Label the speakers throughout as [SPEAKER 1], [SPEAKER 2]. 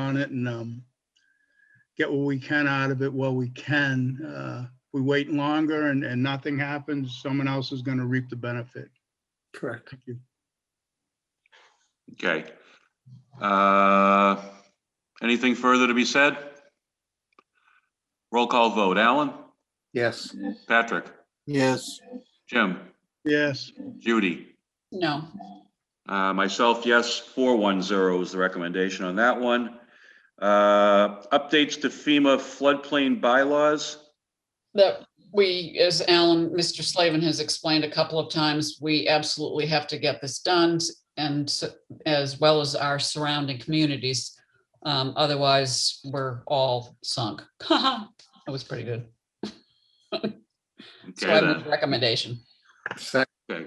[SPEAKER 1] on it and um, get what we can out of it while we can. Uh, If we wait longer and, and nothing happens, someone else is going to reap the benefit.
[SPEAKER 2] Correct.
[SPEAKER 3] Okay. Uh, Anything further to be said? Roll call vote. Alan?
[SPEAKER 2] Yes.
[SPEAKER 3] Patrick?
[SPEAKER 2] Yes.
[SPEAKER 3] Jim?
[SPEAKER 1] Yes,
[SPEAKER 3] Judy?
[SPEAKER 4] No,
[SPEAKER 3] Uh, Myself, yes, 410 is the recommendation on that one. Uh, Updates to FEMA floodplain bylaws?
[SPEAKER 4] that we, as Alan, Mr. Slavin has explained a couple of times, we absolutely have to get this done and s- as well as our surrounding communities. Um, otherwise, we're all sunk. Haha, That was pretty good. So
[SPEAKER 3] Okay.
[SPEAKER 4] I
[SPEAKER 3] then.
[SPEAKER 4] move recommendation.
[SPEAKER 2] Sec-
[SPEAKER 3] Okay.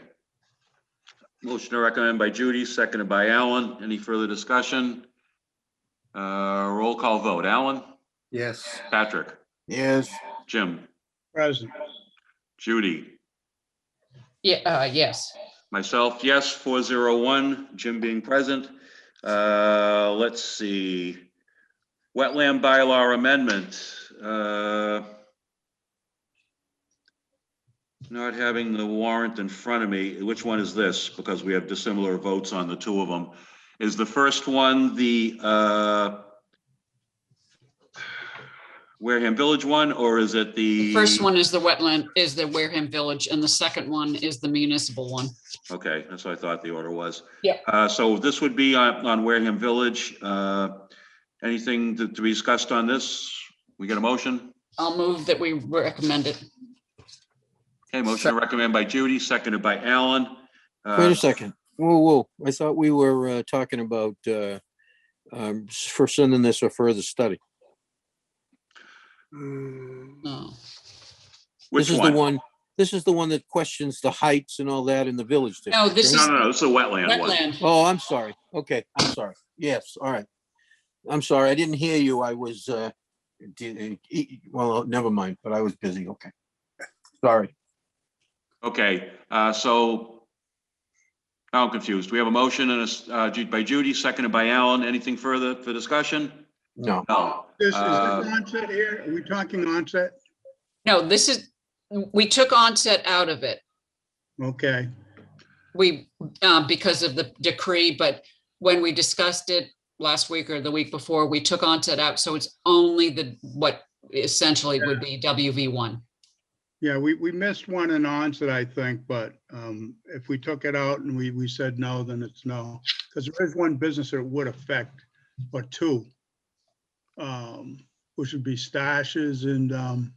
[SPEAKER 3] Motion to recommend by Judy, seconded by Alan. Any further discussion? Uh, Roll call vote. Alan?
[SPEAKER 2] Yes.
[SPEAKER 3] Patrick?
[SPEAKER 2] Yes.
[SPEAKER 3] Jim?
[SPEAKER 1] present.
[SPEAKER 3] Judy?
[SPEAKER 4] Yeah, uh, yes,
[SPEAKER 3] Myself, yes, 401, Jim being present. Uh, Let's see. Wetland bylaw amendment. uh, Not having the warrant in front of me, which one is this? Because we have dissimilar votes on the two of them. Is the first one the uh, Wareham Village one, or is it the?
[SPEAKER 4] the first one is the wetland, is the Wareham Village, and the second one is the municipal one.
[SPEAKER 3] Okay, that's what I thought the order was.
[SPEAKER 4] Yeah.
[SPEAKER 3] Uh, so this would be on, on Wareham Village. Uh, anything to, to be discussed on this? We get a motion?
[SPEAKER 4] I'll move that we recommend it.
[SPEAKER 3] Okay, motion to recommend by Judy, seconded by Alan. Uh,
[SPEAKER 5] Wait a second. Whoa, whoa. I thought we were uh, talking about uh, um, s- for sending this a further study.
[SPEAKER 2] Mm.
[SPEAKER 4] No,
[SPEAKER 3] Which
[SPEAKER 5] This is
[SPEAKER 3] one?
[SPEAKER 5] the one, this is the one that questions the heights and all that in the village.
[SPEAKER 4] no,
[SPEAKER 5] district,
[SPEAKER 4] this
[SPEAKER 3] No,
[SPEAKER 4] is
[SPEAKER 3] no, no, it's the wetland one.
[SPEAKER 4] wetland.
[SPEAKER 5] right? Oh, I'm sorry. Okay, I'm sorry. Yes, all right. I'm sorry. I didn't hear you. I was, uh, di- e- e- well, never mind, but I was busy. Okay. Sorry.
[SPEAKER 3] Okay, uh, so now I'm confused. We have a motion and a, s- uh, Ju- by Judy, seconded by Alan. Anything further for discussion?
[SPEAKER 5] No.
[SPEAKER 3] No.
[SPEAKER 1] This is this
[SPEAKER 3] Uh,
[SPEAKER 1] onset here. Are we talking onset?
[SPEAKER 4] No, this is, we took onset out of it.
[SPEAKER 1] Okay,
[SPEAKER 4] We, uh, because of the decree, but when we discussed it last week or the week before, we took onset out. So it's only the, what essentially would be WV one.
[SPEAKER 1] yeah, we, we missed one in onset, I think, but um, if we took it out and we, we said no, then it's no. Because there is one business that it would affect, or two. um, Which would be stashes and um,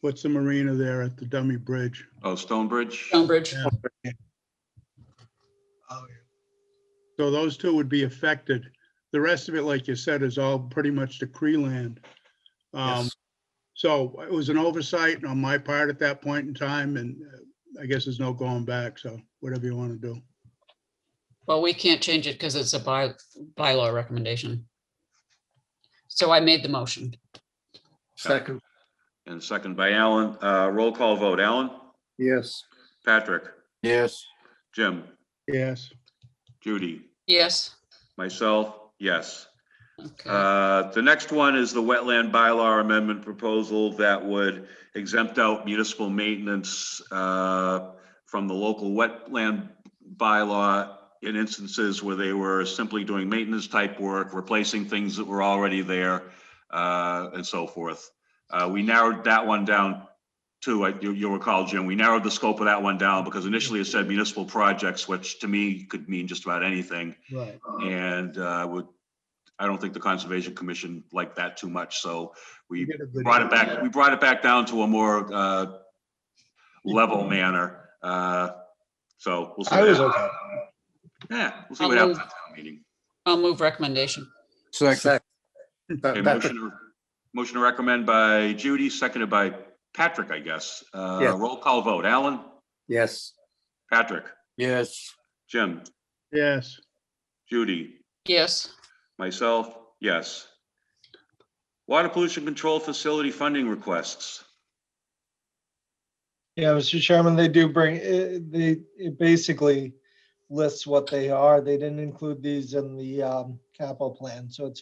[SPEAKER 1] what's the marina there at the dummy bridge?
[SPEAKER 3] Oh, Stonebridge?
[SPEAKER 4] Stonebridge,
[SPEAKER 1] So those two would be affected. The rest of it, like you said, is all pretty much decree land. Um,
[SPEAKER 5] Yes.
[SPEAKER 1] So it was an oversight on my part at that point in time, and uh, I guess there's no going back, so whatever you want to do.
[SPEAKER 4] well, we can't change it because it's a by, bylaw recommendation. So I made the motion.
[SPEAKER 2] Second.
[SPEAKER 3] And seconded by Alan. Uh, roll call vote. Alan?
[SPEAKER 2] Yes.
[SPEAKER 3] Patrick?
[SPEAKER 5] Yes.
[SPEAKER 3] Jim?
[SPEAKER 1] Yes,
[SPEAKER 3] Judy?
[SPEAKER 4] Yes.
[SPEAKER 3] Myself, yes.
[SPEAKER 4] Okay.
[SPEAKER 3] Uh, The next one is the wetland bylaw amendment proposal that would exempt out municipal maintenance uh, from the local wetland bylaw in instances where they were simply doing maintenance type work, replacing things that were already there, uh, and so forth. Uh, We narrowed that one down to, I- you- you'll recall, Jim, we narrowed the scope of that one down because initially it said municipal projects, which to me could mean just about anything.
[SPEAKER 1] right.
[SPEAKER 3] And uh, would, I don't think the Conservation Commission liked that too much,
[SPEAKER 1] You
[SPEAKER 3] so we
[SPEAKER 1] did a good
[SPEAKER 3] brought it
[SPEAKER 1] job.
[SPEAKER 3] back, we brought it back down to a more uh, level manner. Uh, So we'll see.
[SPEAKER 1] I
[SPEAKER 3] what
[SPEAKER 1] was
[SPEAKER 3] happens.
[SPEAKER 1] okay.
[SPEAKER 3] Yeah, we'll see what happens at town meeting.
[SPEAKER 4] I'll move recommendation.
[SPEAKER 5] Second.
[SPEAKER 2] Sec-
[SPEAKER 3] Okay,
[SPEAKER 2] Pat-
[SPEAKER 3] motion,
[SPEAKER 2] Patrick,
[SPEAKER 3] to- motion to recommend by Judy, seconded by Patrick, I guess. Uh,
[SPEAKER 2] Yeah.
[SPEAKER 3] Roll call vote, Alan,
[SPEAKER 2] Yes.
[SPEAKER 3] Patrick,
[SPEAKER 5] Yes.
[SPEAKER 3] Jim,
[SPEAKER 1] Yes,
[SPEAKER 3] Judy,
[SPEAKER 4] Yes.
[SPEAKER 3] myself, yes. Water Pollution Control Facility funding requests.
[SPEAKER 6] Yeah, Mr. Chairman, they do bring, eh, they, it basically lists what they are. They didn't include these in the um, capital plan, so it's